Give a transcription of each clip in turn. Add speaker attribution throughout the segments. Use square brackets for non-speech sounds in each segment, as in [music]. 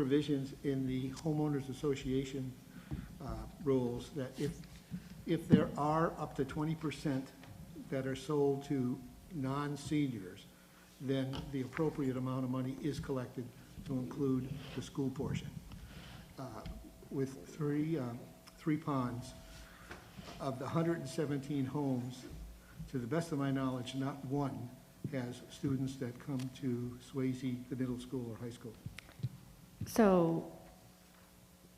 Speaker 1: provisions in the homeowners association uh, rules that if, if there are up to twenty percent that are sold to non-seniors, then the appropriate amount of money is collected to include the school portion. Uh, With three, uh, three ponds, of the 117 homes, to the best of my knowledge, not one has students that come to Swayze, the middle school or high school.
Speaker 2: So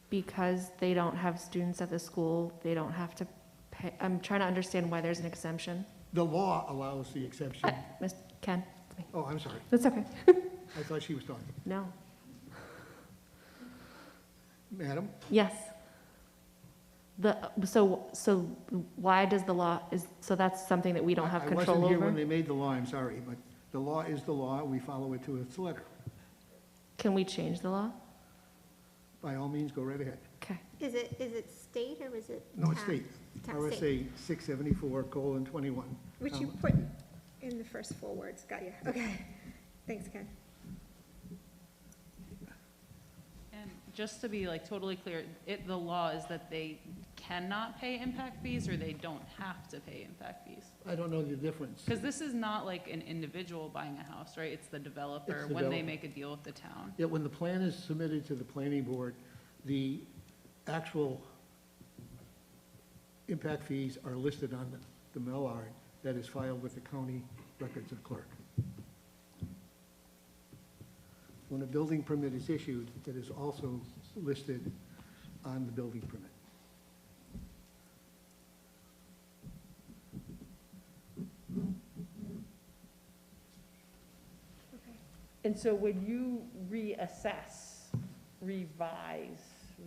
Speaker 2: because they don't have students at the school, they don't have to pay, I'm trying to understand why there's an exemption.
Speaker 1: The law allows the exception.
Speaker 2: Uh, Miss Ken, it's me.
Speaker 1: Oh, I'm sorry.
Speaker 2: that's okay.
Speaker 1: I thought she was talking.
Speaker 2: No,
Speaker 1: Madam?
Speaker 2: yes. The, so, so why does the law, is, so that's something that we don't have
Speaker 1: I
Speaker 2: control
Speaker 1: wasn't here when
Speaker 2: over?
Speaker 1: they made the law, I'm sorry, but the law is the law. We follow it to its letter.
Speaker 2: Can we change the law?
Speaker 1: By all means, go right ahead.
Speaker 2: Okay,
Speaker 3: Is it, is it state or is it?
Speaker 1: No, it's
Speaker 3: town?
Speaker 1: state.
Speaker 3: Town, state.
Speaker 1: RSA 674, colon, 21.
Speaker 3: Which you
Speaker 1: Um,
Speaker 3: put in the first four words, got you, okay. Thanks, Ken.
Speaker 4: And just to be like totally clear, it, the law is that they cannot pay impact fees or they don't have to pay impact fees?
Speaker 1: I don't know the difference.
Speaker 4: Because this is not like an individual buying a house, right? It's the developer
Speaker 1: It's the
Speaker 4: when they
Speaker 1: developer.
Speaker 4: make a deal with the town.
Speaker 1: Yet when the plan is submitted to the planning board, the actual impact fees are listed on the- the Millard that is filed with the county records and clerk. When a building permit is issued, that is also listed on the building permit.
Speaker 5: And so when you reassess, revise,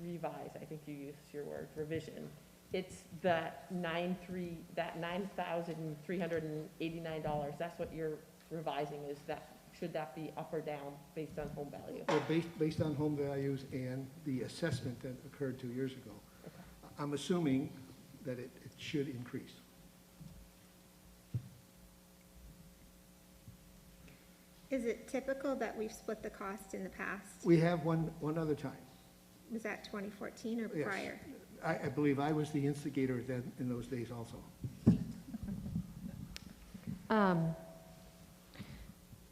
Speaker 5: revise, I think you used your word, revision, it's that nine three, that nine thousand three hundred and eighty-nine dollars, that's what you're revising is that, should that be up or down based on home value?
Speaker 1: Well, based, based on home values and the assessment that occurred two years ago, I'm assuming that it, it should increase.
Speaker 3: Is it typical that we've split the cost in the past?
Speaker 1: We have one, one other time.
Speaker 3: Was that 2014 or
Speaker 1: Yes.
Speaker 3: prior?
Speaker 1: I, I believe I was the instigator then, in those days also.
Speaker 2: um,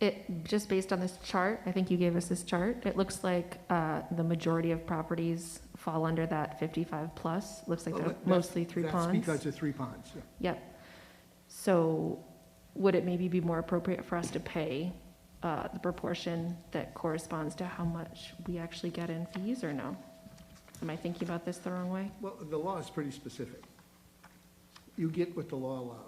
Speaker 2: it, just based on this chart, I think you gave us this chart, it looks like, uh, the majority of properties fall under that fifty-five plus. Looks like
Speaker 1: Well,
Speaker 2: they're
Speaker 1: Oh, that-
Speaker 2: mostly three
Speaker 1: that's
Speaker 2: ponds.
Speaker 1: because of three ponds, yeah.
Speaker 2: Yep. So would it maybe be more appropriate for us to pay uh, the proportion that corresponds to how much we actually get in fees or no? Am I thinking about this the wrong way?
Speaker 1: Well, the law is pretty specific. You get what the law allows.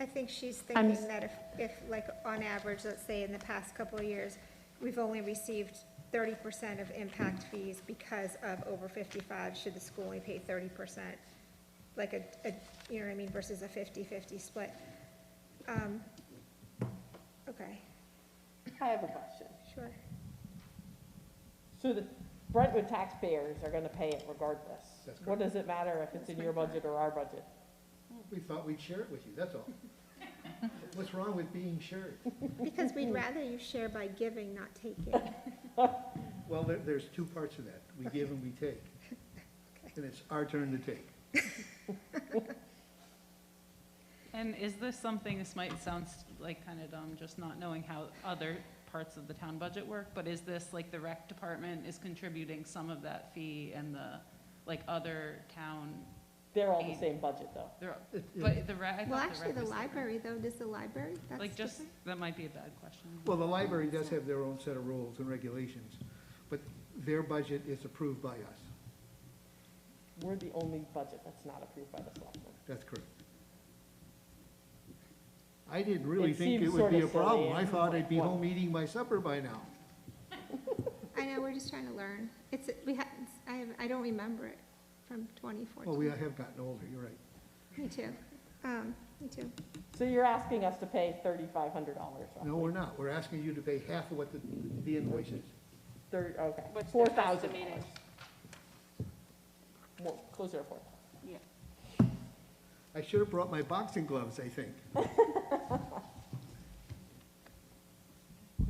Speaker 3: I think she's
Speaker 2: I'm-
Speaker 3: thinking that if, if, like, on average, let's say in the past couple of years, we've only received 30% of impact fees because of over 55, should the school only pay 30%? Like a, a, you know what I mean, versus a 50-50 split. Um, Okay,
Speaker 5: I have a question.
Speaker 3: sure.
Speaker 5: So the Brentwood taxpayers are gonna pay it regardless.
Speaker 1: That's
Speaker 5: What does it matter if it's in your budget or our budget?
Speaker 1: We thought we'd share it with you, that's all.
Speaker 2: [laughs]
Speaker 1: What's wrong with being shared?
Speaker 3: Because we'd rather you share by giving, not taking.
Speaker 1: Well, there, there's two parts of that. We give and we take. And it's our turn to take.
Speaker 4: And is this something, this might sound s- like kind of dumb, just not knowing how other parts of the town budget work, but is this like the rec department is contributing some of that fee and the, like, other town,
Speaker 5: They're all the same budget though.
Speaker 4: they're-
Speaker 1: It- it-
Speaker 4: but the rec, I
Speaker 3: Well,
Speaker 4: thought the
Speaker 3: actually,
Speaker 4: rec
Speaker 3: the
Speaker 4: was separate.
Speaker 3: library, though, does the library? That's
Speaker 4: Like, just,
Speaker 3: different?
Speaker 4: that might be a bad question.
Speaker 1: Well, the library does have their own set of rules and regulations, but their budget is approved by us.
Speaker 5: We're the only budget that's not approved by the selectmen.
Speaker 1: That's correct. I didn't really
Speaker 5: It
Speaker 1: think it
Speaker 5: seems
Speaker 1: would be a
Speaker 5: sorta silly
Speaker 1: problem. I
Speaker 5: and-
Speaker 1: thought I'd be
Speaker 5: Well-
Speaker 1: home eating my supper by now.
Speaker 3: I know, we're just trying to learn. It's, we had, I, have- I don't remember it from
Speaker 1: Well, we
Speaker 3: 2014.
Speaker 1: have gotten older, you're right.
Speaker 3: Me too. Um, me too.
Speaker 5: So you're asking us to pay thirty-five hundred dollars roughly?
Speaker 1: No, we're not. We're asking you to pay half of what the, the invoice is.
Speaker 5: Thir okay,
Speaker 4: What's
Speaker 5: four
Speaker 4: their
Speaker 5: thousand dollars.
Speaker 4: estimated?
Speaker 5: More, closer to four.
Speaker 1: I should have brought my boxing gloves, I think.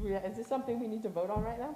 Speaker 5: Yeah, is this something we need to vote on right now?